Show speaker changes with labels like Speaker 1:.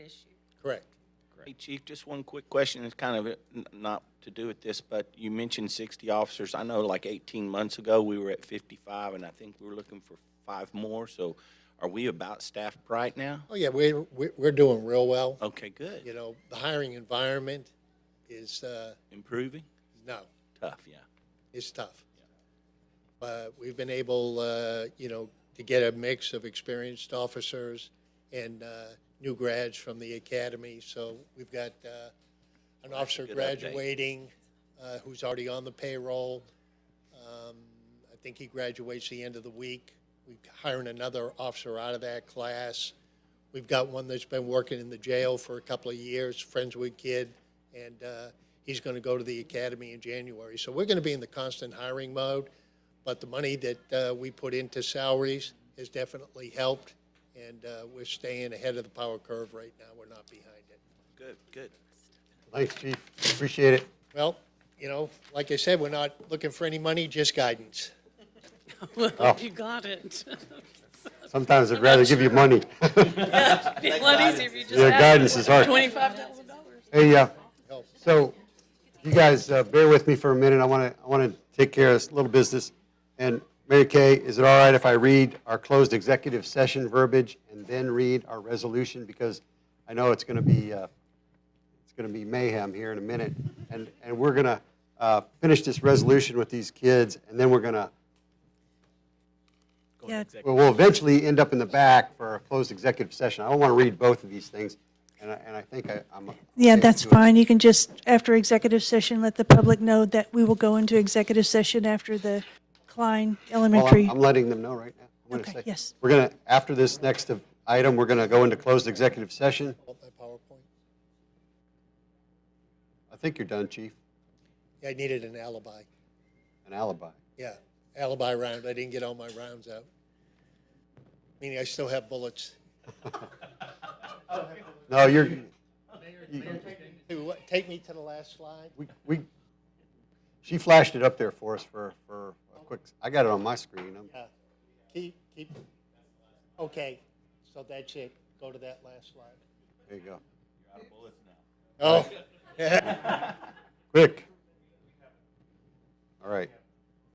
Speaker 1: Correct.
Speaker 2: Hey, Chief, just one quick question. It's kind of uh, n- not to do with this, but you mentioned 60 officers. I know like 18 months ago, we were at 55, and I think we were looking for five more. So are we about staffed right now?
Speaker 1: Oh, yeah, we, we- we're doing real well.
Speaker 2: Okay, good.
Speaker 1: You know, the hiring environment is, uh,
Speaker 2: Improving?
Speaker 1: no,
Speaker 2: Tough, yeah.
Speaker 1: it's tough. But we've been able, uh, you know, to get a mix of experienced officers and uh, new grads from the academy. So we've got uh, an officer
Speaker 2: good update.
Speaker 1: graduating uh, who's already on the payroll. Um, I think he graduates the end of the week. We're hiring another officer out of that class. We've got one that's been working in the jail for a couple of years, friends with kid, and uh, he's going to go to the academy in January. So we're going to be in the constant hiring mode, but the money that uh, we put into salaries has definitely helped, and uh, we're staying ahead of the power curve right now. We're not behind it.
Speaker 2: Good, good.
Speaker 3: Thanks, chief. Appreciate it.
Speaker 1: Well, you know, like I said, we're not looking for any money, just guidance.
Speaker 3: Oh.
Speaker 4: Well, you got it.
Speaker 3: Sometimes I'd rather give you money.
Speaker 4: It'd be a lot easier if you just
Speaker 3: Yeah, guidance
Speaker 4: asked
Speaker 3: is hard.
Speaker 4: twenty-five thousand dollars.
Speaker 3: Hey, uh, so you guys uh, bear with me for a minute. I want to, I want to take care of this little business. And Mary Kay, is it all right if I read our closed executive session verbiage and then read our resolution? Because I know it's going to be, uh, it's going to be mayhem here in a minute. And, and we're going to uh, finish this resolution with these kids and then we're going to
Speaker 5: Yeah,
Speaker 3: Well, we'll eventually end up in the back for a closed executive session. I don't want to read both of these things, and I, and I think I, I'm.
Speaker 5: yeah, that's
Speaker 3: okay with
Speaker 5: fine. You can just, after executive session, let the public know that we will go into executive session after the Klein
Speaker 3: it. Well, I'm-
Speaker 5: Elementary.
Speaker 3: I'm letting them know right now. I'm gonna
Speaker 5: Okay,
Speaker 3: say-
Speaker 5: yes.
Speaker 3: We're gonna, after this next of- item, we're gonna go into closed executive session.
Speaker 1: Want my PowerPoint?
Speaker 3: I think you're done, chief,
Speaker 1: Yeah, I needed an alibi.
Speaker 3: an alibi.
Speaker 1: Yeah, alibi round. I didn't get all my rounds out. Meaning I still have bullets.
Speaker 3: No, you're,
Speaker 1: Hey, what- Take me to the last slide.
Speaker 3: we, we, she flashed it up there for us for, for a quick, I got it on my screen. I'm-
Speaker 1: Yeah. Keep, keep. Okay, so that's it. Go to that last slide.
Speaker 3: There you go.
Speaker 1: Oh,
Speaker 3: Quick. All right.